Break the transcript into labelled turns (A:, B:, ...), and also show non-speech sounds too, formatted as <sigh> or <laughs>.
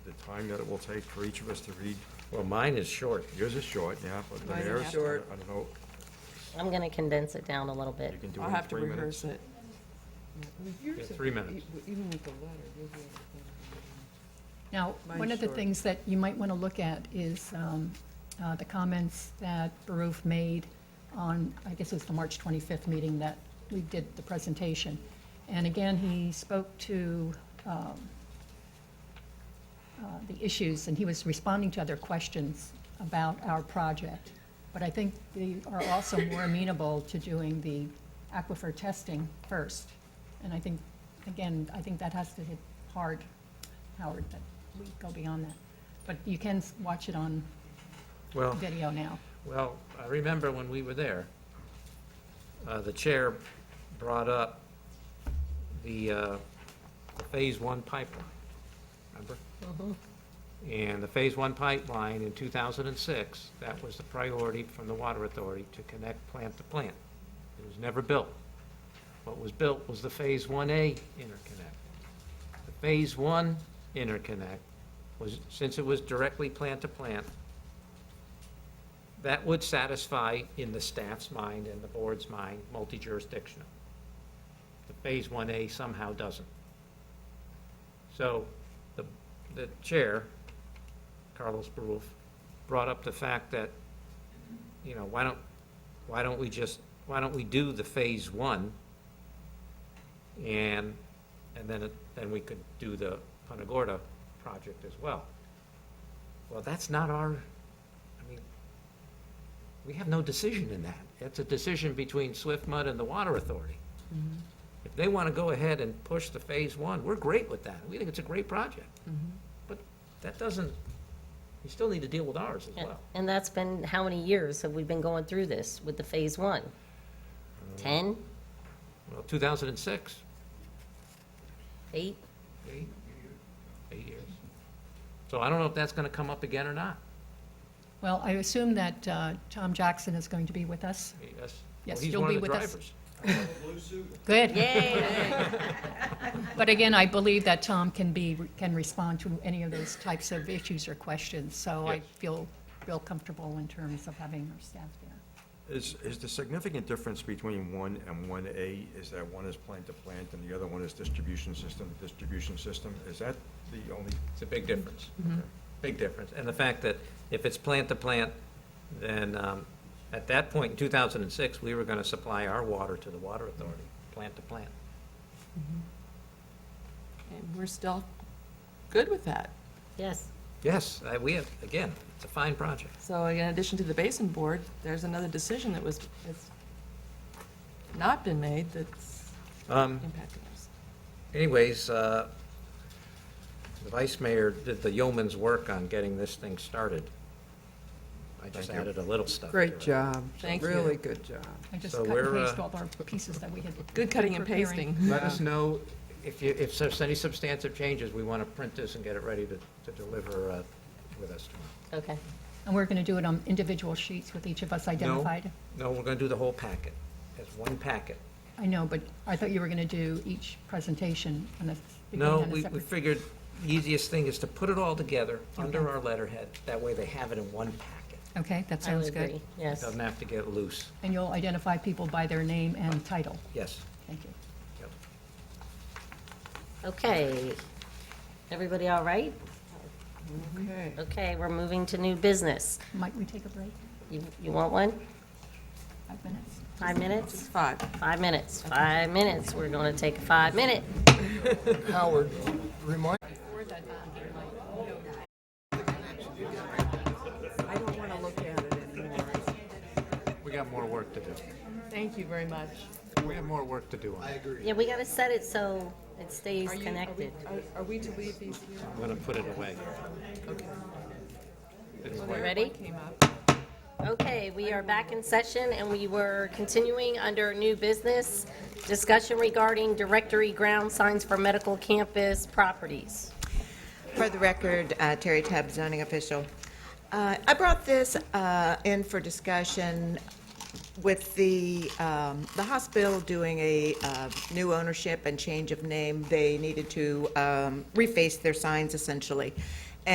A: time that it will take for each of us to read.
B: Well, mine is short.
A: Yours is short, yeah, but the
C: Mine is
A: mayor's, I
C: short.
A: don't know,
D: I'm going to condense it down a little bit.
A: you can do it
C: I'll
A: in
C: have to
A: three minutes.
C: rehearse it.
A: Yeah, Three minutes.
C: Even with the letter, you'll be
E: Now,
C: Mine's
E: one of the
C: short.
E: things that you might want to look at is um, uh, the comments that Baruf made on, I guess it was the March 25th meeting that we did the presentation. And again, he spoke to um, uh, the issues, and he was responding to other questions about our project. But I think they are also more amenable to doing the aquifer testing first. And I think, again, I think that has to hit hard Howard, but we go beyond that. But you can s- watch it on
B: Well,
E: video now.
B: well, I remember when we were there, uh, the chair brought up the, uh, the Phase One pipeline, remember? And the Phase One pipeline in two thousand and six, that was the priority from the Water Authority to connect plant to plant. It was never built. What was built was the Phase One A interconnect. The Phase One interconnect was, since it was directly plant to plant, that would satisfy, in the staff's mind and the board's mind, multi-jurisdictional. The Phase 1A somehow doesn't. So the, the chair, Carlos Baruf, brought up the fact that, you know, why don't, why don't we just, why don't we do the Phase 1? And, and then, it- then we could do the Punta Gorda project as well. Well, that's not our, I mean, we have no decision in that. That's a decision between Swift Mud and the Water Authority. If they want to go ahead and push the Phase One, we're great with that. We think it's a great project. But that doesn't, you still need to deal with ours as
D: And-
B: well.
D: And that's been, how many years have we been going through this with the phase one? 10,
B: Well, 2006,
D: eight?
B: eight, eight years. So I don't know if that's going to come up again or not.
E: Well, I assume that uh, Tom Jackson is going to be with us.
B: Yes. Well,
E: Yes,
B: he's
E: you'll
B: one of
E: be
B: the
E: with us.
B: drivers.
E: Good.
D: Yay!
E: <laughs> But again, I believe that Tom can be, can respond to any of those types of issues or questions. So I
B: Yes.
E: feel real comfortable in terms of having our staff there.
A: Is, is the significant difference between one and one A is that one is plant to plant and the other one is distribution system to distribution system? Is that the only,
B: It's a big difference.
E: Mm-hmm.
B: Big difference. And the fact that if it's plant to plant, then um, at that point in 2006, we were going to supply our water to the Water Authority, plant to plant.
C: And we're still good with that.
D: Yes,
B: Yes, I- Uh, we have, again, it's a fine project.
C: So in addition to the basin board, there's another decision that was, that's not been made that's
B: Um,
C: impacting us.
B: Anyways, uh, the vice mayor did the yeoman's work on getting this thing started. I just
A: Thank you.
B: added a little stuff. to
F: Great
B: it.
F: job.
C: Thank you.
F: Really good job.
E: I just
B: So
E: cut and
B: we're, uh,
E: paste all our pieces that we had.
C: <laughs> Good cutting and
E: preparing.
C: pasting.
B: Let us know if you, if there's any substantive changes, we want to print this and get it ready to, to deliver uh, with us tomorrow.
D: okay.
E: And we're going to do it on individual sheets with each of us identified.
B: No, no, we're going to do the whole packet, as one packet.
E: I know, but I thought you were going to do each presentation on a, s- beginning
B: No,
E: on a
B: we, we
E: separate.
B: figured the easiest thing is to put it all together under our letterhead. That way they have it in one packet.
E: Okay, that
D: I would
E: sounds good.
D: agree. Yes.
B: Doesn't have to get loose.
E: And you'll identify people by their name and title.
B: Yes.
E: Thank you.
B: Yep.
D: Okay. Everybody all right?
F: Okay.
D: Okay, we're moving to new business.
E: Might we take a break?
D: You, you want one?
E: Five minutes?
D: Five minutes?
C: Five.
D: Five minutes, five minutes. We're going to take a five minute.
F: Howard, remind.
C: I don't want to look at it anymore.
B: We got more work to do.
C: Thank you very much.
B: We have more work to do on it.
D: Yeah, we got to set it so it stays
C: Are you- are we-
D: connected.
C: are- Are we to leave these here?
B: I'm going to put it away.
D: We ready?
C: Came up.
D: Okay, we are back in session, and we were continuing under new business, discussion regarding directory ground signs for medical campus properties.
G: For the record, uh, Terry Tubbs, zoning official. Uh, I brought this uh, in for discussion with the, um, the hospital doing a uh, new ownership and change of name. They needed to um, reface their signs essentially.